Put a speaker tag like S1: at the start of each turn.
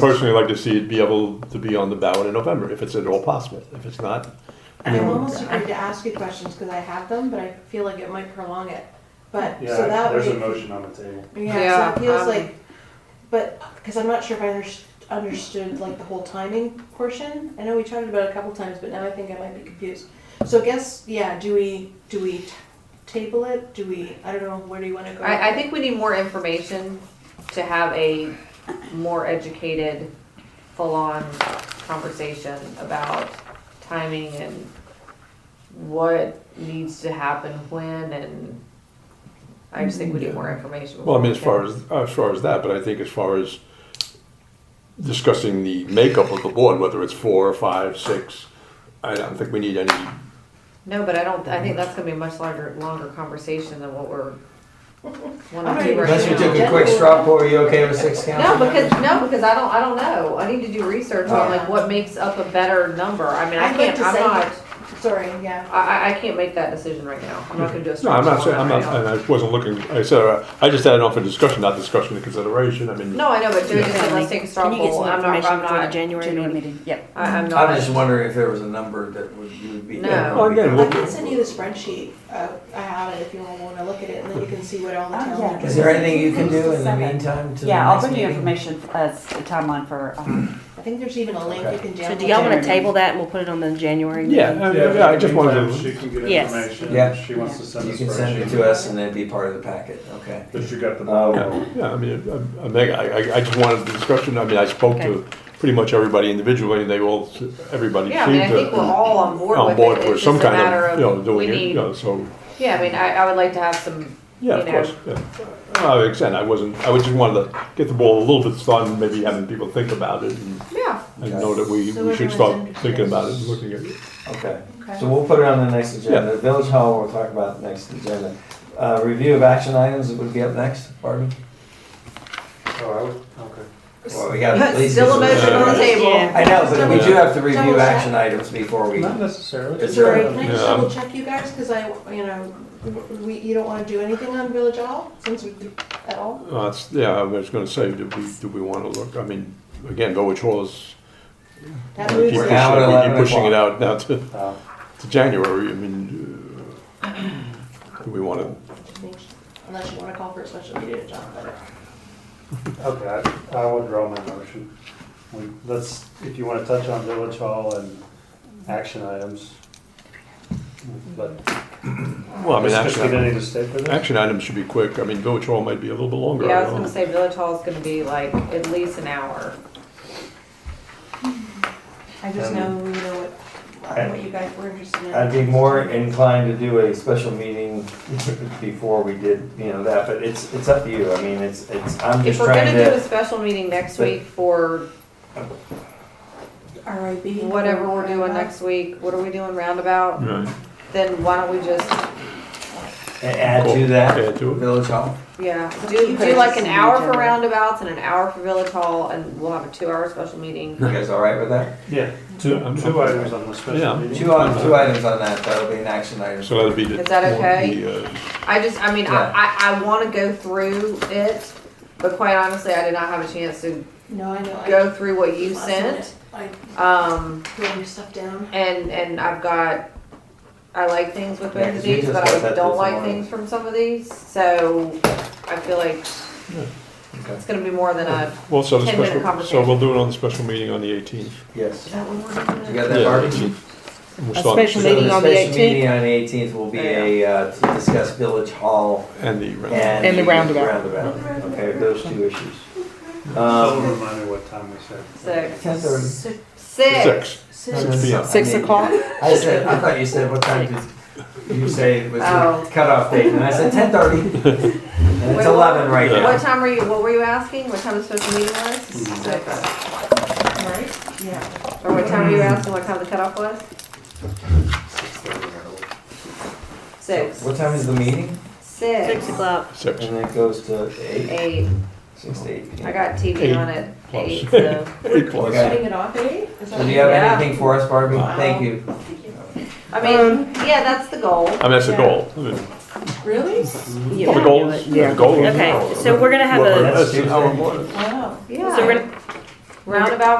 S1: personally like to see it be able to be on the ballot in November, if it's at all possible. If it's not,
S2: I'm almost afraid to ask you questions because I have them, but I feel like it might prolong it. But,
S3: Yeah,
S2: so that would.
S3: there's a motion on the table.
S2: Yeah, so it feels
S4: um,
S2: like, but, because I'm not sure if I underst- understood like the whole timing portion. I know we talked about it a couple times, but now I think I might be confused. So I guess, yeah, do we, do we t- table it? Do we, I don't know, where do you want to go?
S4: I, I think we need more information to have a more educated, full-on conversation about timing and what needs to happen when and I just think we need more information.
S1: well, I mean, as far as, as far as that, but I think as far as discussing the makeup of the board, whether it's four or five, six, I don't think we need any,
S4: No, but I don't, I think that's gonna be a much larger, longer conversation than what we're wanting to
S2: Alright.
S4: do right now.
S5: Unless we took a quick straw poll, are you okay with six
S4: No,
S5: council?
S4: because, no, because I don't, I don't know. I need to do research on
S2: Yeah.
S4: like what makes up a better number. I mean, I
S2: I'd like
S4: can't,
S2: to
S4: I'm
S2: say
S4: not,
S2: Sorry, yeah.
S4: I, I- I can't make that decision right now. I'm not gonna do a
S1: no,
S4: straw
S1: I'm not
S4: poll
S1: saying, I'm
S4: on that
S1: not,
S4: right
S1: and I wasn't looking, I said, uh, I just had it on for discussion, not discussion and consideration, I mean.
S4: now. No, I know, but Joe just said,
S6: Yeah.
S4: let's take a straw
S6: Can you get
S4: poll.
S6: some
S4: I'm not,
S6: information
S4: I'm
S6: for the
S4: not.
S6: January meeting? Yep.
S4: I, I'm
S5: I was just
S4: not,
S5: wondering if there was a number that would, you would be.
S4: No.
S5: that
S1: Well,
S5: would be
S1: again,
S2: I
S1: we'll-
S2: can send you the spreadsheet. Uh, I have it if you want to look at it and then you can see what all the
S6: Oh,
S2: towns
S6: yeah.
S2: are doing.
S5: Is there anything you can do in the
S6: Seven.
S5: meantime to the
S6: Yeah, I'll
S5: next
S6: bring you
S5: meeting?
S6: information as a timeline for, um,
S2: I think there's even a link you
S5: Okay.
S2: can download.
S6: So do y'all wanna table that and we'll put it on the January
S1: Yeah,
S6: meeting?
S1: I- Uh, yeah, I just wanted
S3: Meantime,
S1: to.
S3: She can get
S6: Yes.
S3: information,
S5: Yeah.
S3: if she wants to send a
S5: You can send it
S3: spreadsheet,
S5: to us and it'd be part of the packet, okay.
S3: but you got the
S5: Oh.
S3: ball
S1: Yeah, yeah, I mean, I- I, Meg, I, I- I just wanted the discussion, I mean, I spoke to pretty much everybody individually, and they all, everybody
S4: yeah, I mean, I
S1: seemed
S4: think we're
S1: to.
S4: all on
S1: On
S4: board with
S1: board
S4: it.
S1: for
S4: It's just
S1: some
S4: a
S1: kind
S4: matter
S1: of, you know,
S4: of, we
S1: doing it, you
S4: need,
S1: know, so,
S4: yeah, I mean, I, I would like to have some,
S1: yeah, of
S4: you
S1: course, yeah. Uh, like I said, I wasn't, I was just wanted to get the ball a little bit started, maybe having people think about it, and
S4: yeah.
S1: I
S5: Okay.
S1: know that we,
S2: So
S1: we should
S2: everyone's
S1: start
S2: interested.
S1: thinking about it and looking at it.
S5: Okay,
S2: Okay.
S5: so we'll put it on the next agenda, Village Hall, we'll talk about next agenda. Uh, review of action items would be up next, Barbie?
S3: Oh, I would, okay.
S5: Well, we got at least.
S4: Still a motion on the
S5: Yeah.
S4: table.
S6: Yeah.
S5: I know, but we do have to
S2: Double
S5: review
S2: check.
S5: action items before we.
S3: Not necessarily.
S5: It's
S2: Sorry,
S5: Yeah.
S2: can I just
S1: Yeah.
S2: double check you guys, because I, you know, we, you don't want to do anything on Village Hall, since we, at all?
S1: Uh, it's, yeah, I was gonna say, do we, do we wanna look, I mean, again, Village Hall is,
S2: That
S1: we
S2: moves,
S1: keep
S5: We're
S2: it.
S5: out at
S1: pushing, we keep
S5: 11
S1: pushing it
S5: o'clock.
S1: out now to,
S3: Uh,
S1: to January, I mean, uh, do we wanna
S2: unless you want to call for a special meeting, John, but.
S3: Okay, I- I will draw my motion. We- Let's, if you want to touch on Village Hall and action items, but
S1: Well, I mean,
S3: does
S1: action,
S3: Christina
S1: item-
S3: need to stay for this?
S1: action items should be quick. I mean, village hall might be a little bit longer.
S4: Yeah, I
S1: I
S4: was
S1: don't
S4: gonna
S1: know.
S4: say Village Hall is gonna be like at least an hour.
S2: I just
S3: Um,
S2: know, you know, what, what you guys were interested in.
S5: I'd be more inclined to do a special meeting before we did, you know, that, but it's, it's up to you, I mean, it's, it's, I'm
S4: If
S5: just
S4: we're gonna
S5: trying
S4: do a
S5: to.
S4: special meeting next week for
S2: RIB.
S4: whatever we're
S2: Uh,
S4: doing next week, what are we doing roundabout?
S1: Right.
S4: Then why don't we just,
S5: a- Add
S1: Cool.
S5: to that,
S1: Add to it.
S5: Village Hall.
S4: yeah,
S6: You
S4: do,
S6: put it
S4: do like
S6: just
S4: an
S6: in the
S4: hour for
S6: agenda.
S4: roundabouts and an hour for Village Hall, and we'll have a two-hour special meeting.
S5: You guys all right with that?
S3: Yeah, two,
S1: I'm-
S3: two items on the
S1: Yeah.
S3: special meeting.
S5: Two, on- two items on that, that'll be an action item.
S1: So that'd be the.
S4: Is that okay?
S1: the, uh,
S4: I just, I mean,
S5: Yeah.
S4: I, I, I wanna go through it, but quite honestly, I did not have a chance to
S2: No, I know. I-
S4: go through what you
S2: last
S4: sent.
S2: minute,
S4: Um,
S2: I wrote stuff down.
S4: and, and I've got, I like things with
S5: Yeah,
S4: both
S5: 'cause
S4: of
S5: we
S4: these,
S5: just
S4: but
S5: got that
S4: I don't
S5: this
S4: like
S5: morning.
S4: things from some of these, so I feel like
S5: Okay.
S4: it's gonna be more than a,
S1: Well, so the
S4: 10 minute
S1: special, so
S4: conversation.
S1: we'll do it on the special meeting on the eighteenth.
S5: Yes.
S4: is that what we're doing?
S5: You got that, Barbie?
S6: A special
S5: So
S6: Meeting
S5: the
S6: on the
S5: special
S6: 18th?
S5: meeting on the eighteenth will be a, uh, to discuss Village Hall
S1: And the,
S5: and.
S6: And the roundabout.
S5: Roundabout, okay, those two issues.
S3: Someone
S5: Um,
S3: remind me what time we said.
S4: Six.
S5: ten thirty.
S2: Six,
S4: Six.
S1: six.
S2: six.
S1: p.m.
S6: Six o'clock?
S5: I said, I thought you said, what time did you say was
S4: Oh.
S5: the cutoff date? And I said, ten thirty. And
S4: Wait,
S5: it's eleven right
S1: Yeah.
S4: What
S5: now.
S4: time were you, what were you asking? What time the special meeting was? Six.
S2: Right? Yeah.
S4: Or what time were you asking, what time the cutoff was? Six.
S5: What time is the meeting?
S4: Six.
S6: Six o'clock.
S1: Six.
S5: And it goes to eight,
S4: Eight.
S5: six to eight.
S4: I
S5: p.m.
S4: got TV on at
S1: Plus.
S4: eight, so.
S1: Eight plus.
S5: Okay.
S2: Cutting it off, eh? Is
S5: So
S2: that-
S5: do you have
S4: Yeah.
S5: anything for us, Barbie? Thank you.
S4: I
S1: Um.
S4: mean, yeah, that's the goal.
S1: I mean, that's the
S2: Yeah.
S1: goal. I mean,
S2: Really?
S6: Yeah.
S1: The goal, is-
S6: Yeah.
S1: the goal. is-
S6: Okay, so we're gonna have
S1: Well,
S6: a-
S1: that's the-
S5: That's
S1: our board.
S2: Wow.
S4: Yeah.
S6: So we're,
S4: roundabout